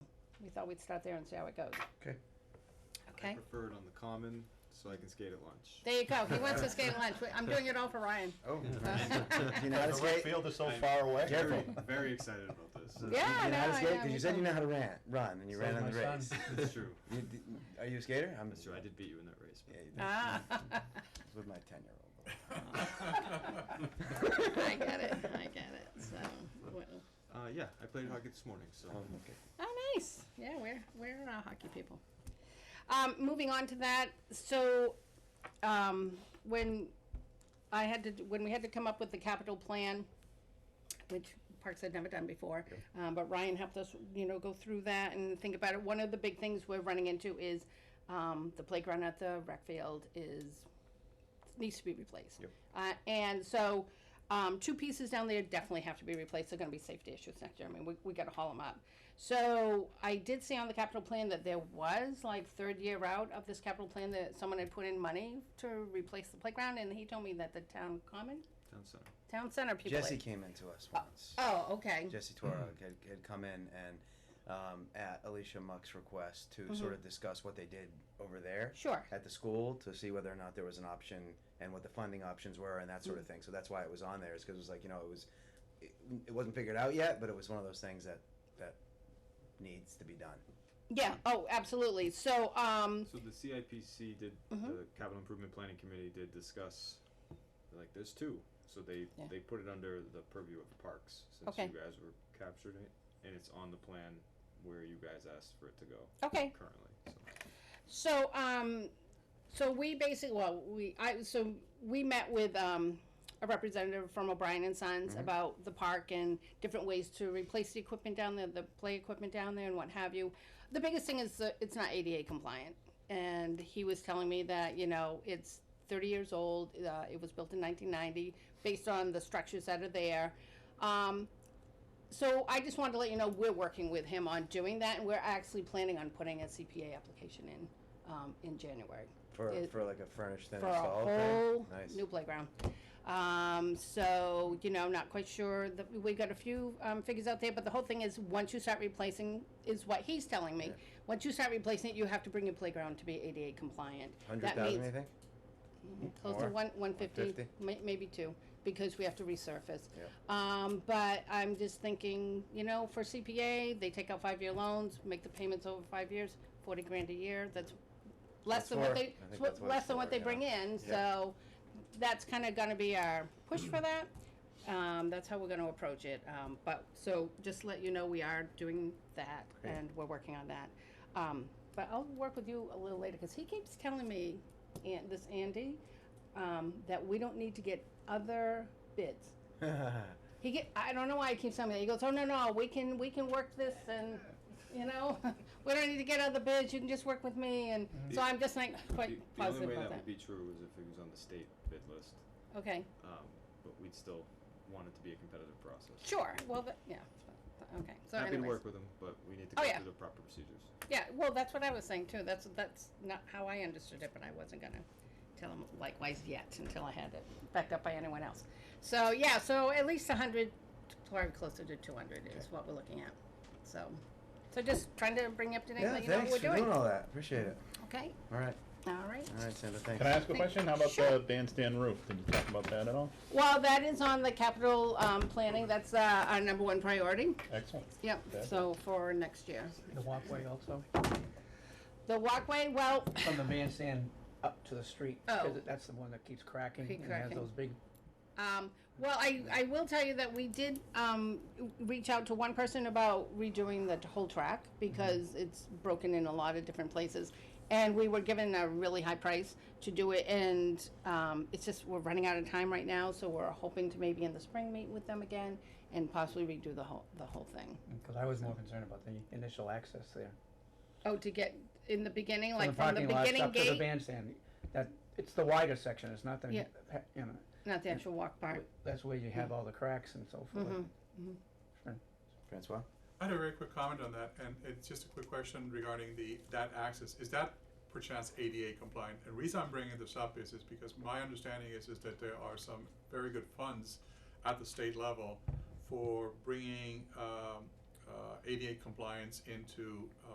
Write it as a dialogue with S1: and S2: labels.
S1: thought we'd start there and see how it goes.
S2: Okay.
S1: Okay,
S3: I prefer it on the common so I can skate at lunch.
S1: there you go, he wants to skate lunch, I'm doing it all for Ryan.
S2: Oh.
S1: Yeah.
S2: You know how to
S4: The rec
S2: skate?
S4: field is so
S3: I'm
S4: far away.
S3: Very,
S2: Careful.
S3: very excited about this.
S1: Yeah,
S2: You know how to
S1: no, I
S2: skate?
S1: know,
S2: 'Cause
S1: me
S2: you said
S1: too.
S2: you know how to ran, run, and you
S5: Saved
S2: ran on
S5: my
S2: the
S5: son.
S2: race.
S3: It's true.
S2: You, d- are you a skater? I'm.
S3: That's true. I did beat you in that race. but-
S2: Yeah, you-
S1: Ah.
S2: it's With my ten-year-old.
S1: I get it, I get it, so, well,
S3: Uh, yeah, I played hockey this morning, so.
S2: Oh, okay.
S1: oh, nice, yeah, we're, we're uh, hockey people. Um, moving on to that, so, um, when I had to, d- when we had to come up with the capital plan, which Parks had never done before, um, but Ryan helped us, you know, go through that and think about it. One of the big things we're running into is, um, the playground at the rec field is needs to be replaced. Uh, and so, um, two pieces down there definitely have to be replaced. They're gonna be safety issues next year. I mean, we, we gotta haul them up. So I did see on the capital plan that there was like third year out of this capital plan that someone had put in money to replace the playground and he told me that the town common,
S3: Town center.
S1: town center people. had-
S2: Jesse came into us once.
S1: Oh, okay.
S2: Jesse Toro had, had come in and um, at Alicia Muck's request
S1: Mm-hmm.
S2: to sort of discuss what they did over there
S1: Sure.
S2: at the school to see whether or not there was an option and what the funding options were and that sort
S1: Mm.
S2: of thing. So that's why it was on there is because it was like you know it was it, it wasn't figured out yet, but it was one of those things that that needs to be done.
S1: Yeah. Oh, absolutely. So, um,
S3: So the CIPC did,
S1: Mm-hmm.
S3: the Capital Improvement Planning Committee did discuss, like, there's two. So they,
S1: Yeah.
S3: they put it under the purview of the parks since
S1: Okay.
S3: you guys were captured it. And it's on the plan where you guys asked for it to go
S1: okay.
S3: currently. So.
S1: So, um, so we basically, well, we, I, so we met with, um, a representative from O'Brien and Sons about the park and different ways to replace the equipment down there, the play equipment down there and what have you. The biggest thing is that it's not ADA compliant. And he was telling me that, you know, it's thirty years old, uh, it was built in nineteen ninety, based on the structures that are there. Um, so I just wanted to let you know, we're working with him on doing that, and we're actually planning on putting a CPA application in, um, in January.
S2: For,
S1: It-
S2: for like a furnished then
S1: For a
S2: installed thing?
S1: whole
S2: Nice.
S1: new playground. Um, so, you know, not quite sure, that, we got a few, um, figures out there, but the whole thing is, once you start replacing, is what he's telling me. Once you start replacing it, you have to bring your playground to be ADA compliant.
S2: Hundred
S1: That
S2: thousand,
S1: means-
S2: you think?
S1: close to
S2: More?
S1: one, one fifty,
S2: 150?
S1: may, maybe two, because we have to resurface.
S2: Yeah.
S1: Um, but I'm just thinking, you know, for CPA, they take out five-year loans, make the payments over five years, forty grand a year, that's less
S2: That's
S1: than what
S2: more.
S1: they,
S2: I think
S1: swa-
S2: that's what
S1: less
S2: it's
S1: than what
S2: for,
S1: they
S2: yeah.
S1: bring in,
S2: Yeah.
S1: so that's kinda gonna be our push for that. Um, that's how we're gonna approach it, um, but, so just let you know, we are doing that,
S2: Great.
S1: and we're working on that. Um, but I'll work with you a little later, cause he keeps telling me, and this Andy, um, that we don't need to get other bids. He get, I don't know why he keeps telling me that. He goes, oh, no, no, we can, we can work this and, you know, we don't need to get other bids. You can just work with me. And so I'm just like
S3: Mm-hmm. The-
S1: quite
S3: the only
S1: positive
S3: way
S1: about
S3: that
S1: that.
S3: would be true was if it was on the state bid list.
S1: Okay,
S3: Um, but we'd still want it to be a competitive process.
S1: sure. Well, but, yeah, but- okay. So
S3: Happy to
S1: anyways,
S3: work with them, but we need to
S1: Oh,
S3: go
S1: yeah.
S3: through the proper procedures.
S1: yeah, well, that's what I was saying too. That's, that's not how I understood it, but I wasn't gonna tell him likewise yet until I had it backed up by anyone else. So, yeah, so at least a hundred, probably closer to two hundred is what we're looking at. So, so just trying to bring you up to date,
S2: Yeah,
S1: let you know what
S2: thanks
S1: we're
S2: for doing
S1: doing.
S2: all that. Appreciate it.
S1: Okay,
S2: All right,
S1: all right.
S2: all right, Sandra, thanks.
S4: Can I ask a
S1: Thank-
S4: question? How about
S1: Sure.
S4: the bandstand roof? Did you talk about that at all?
S1: Well, that is on the capital, um, planning, that's, uh, our number one priority,
S4: Excellent.
S1: yep,
S4: Okay.
S1: so for next year.
S5: The walkway also,
S1: The walkway, well,
S5: from the bandstand up to the street,
S1: Oh.
S5: because that's the one that keeps cracking
S1: Keep
S5: and has
S1: cracking.
S5: those big
S1: Um, well, I, I will tell you that we did, um, reach out to one person about redoing the whole track because it's broken in a lot of different places. And we were given a really high price to do it and, um, it's just, we're running out of time right now, so we're hoping to maybe in the spring meet with them again and possibly redo the whole, the whole thing.
S5: Because I was more concerned about the initial access there.
S1: Oh, to get in the beginning, like from the
S5: parking lots
S1: beginning
S5: Up to the
S1: gate,
S5: bandstand, that, it's the wider section, it's not the,
S1: Yeah.
S5: ha- you know,
S1: not the actual walk part.
S5: that's where you have all the cracks and so forth.
S1: Mm-hmm.
S2: Francois?
S6: I had a very quick comment on that, and it's just a quick question regarding the, that access, is that perchance ADA compliant? And reason I'm bringing this up is, is because my understanding is, is that there are some very good funds at the state level for bringing, um, uh, ADA compliance into, uh,